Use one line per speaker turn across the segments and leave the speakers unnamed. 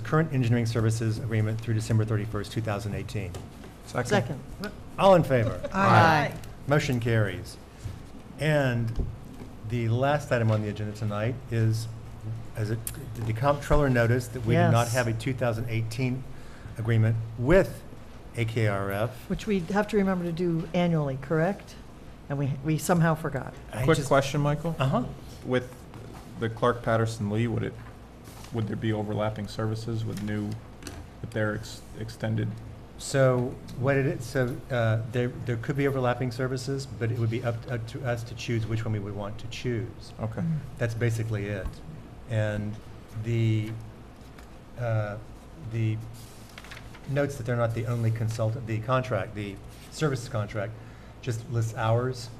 current engineering services agreement through December 31st, 2018.
Second.
All in favor?
Aye.
Motion carries. And the last item on the agenda tonight is, as it, did the comptroller noticed that we do not
Yes.
have a 2018 agreement with AKRF.
Which we have to remember to do annually, correct? And we, we somehow forgot.
I
Quick
just-
question, Michael.
Uh-huh.
With the Clark Patterson Lee, would it, would there be overlapping services with new, with their ex- extended?
So what it is, so uh, there, there could be overlapping services, but it would be up, up to us to choose which one we would want to choose.
Okay.
That's basically it. And the, uh, the notes that they're not the only consultant, the contract, the services contract, just lists hours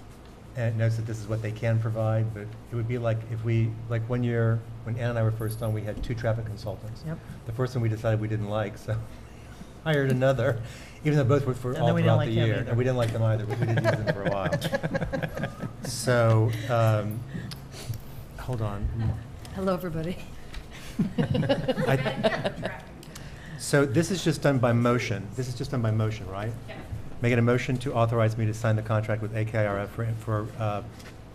and it notes that this is what they can provide, but it would be like if we, like one year, when Ann and I were first on, we had two traffic consultants.
Yep.
The first one we decided we didn't like, so hired another, even though both were for
And
all
then we didn't
throughout the
like them
year.
either.
And we didn't like them either, but we did use them for a while. So, um, hold on.
Hello, everybody.
I- So this is just done by motion. This is just done by motion, right? Making a motion to authorize me to sign the contract with AKRF for, for, uh,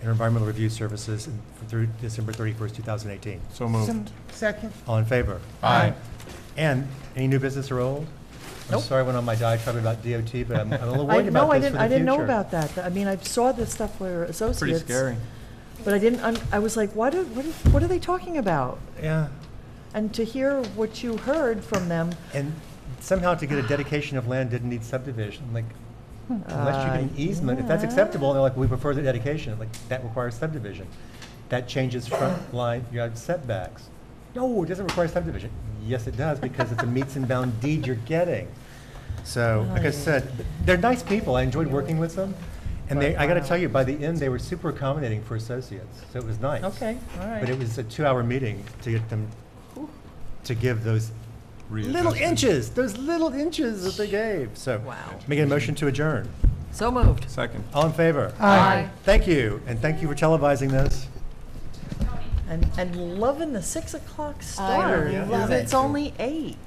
environmental review services through December thirty-first, two thousand eighteen.
So moved.
Second.
All in favor?
Aye.
And any new business or old? I'm
Nope.
sorry I went on my diatribe about DOT, but I'm I'm a little
I,
worried
no,
about this
I
for
didn't,
the
I didn't know
future.
about that. I mean, I saw the stuff where
Pretty
associates.
scary.
But I didn't, un- I was like, what, are- what, are- what are they talking about?
Yeah,
And to hear what you heard from them,
and somehow to get a dedication of land didn't need subdivision, like, Hmm. unless you
Uh,
get an easement, if that's
yeah.
acceptable, they're like, we prefer the dedication, like, that requires subdivision. That changes front line yard setbacks. No, it doesn't require subdivision. Yes, it does, because it's a meets and bound deed you're getting. So, like I
Aye.
said, they're nice people, I enjoyed working with them, and they, I gotta
Wow.
tell you, by the end, they were super accommodating for associates, so it was nice.
okay, all
But it
right.
was a two-hour meeting to get them, to give those little
Readjusted.
inches, those little inches that they gave, so.
Wow.
Making a motion to adjourn.
So moved.
Second.
All in favor?
Aye.
Thank you, and thank you for televising this.
And, and loving the six o'clock start.
love
it.
It's only eight.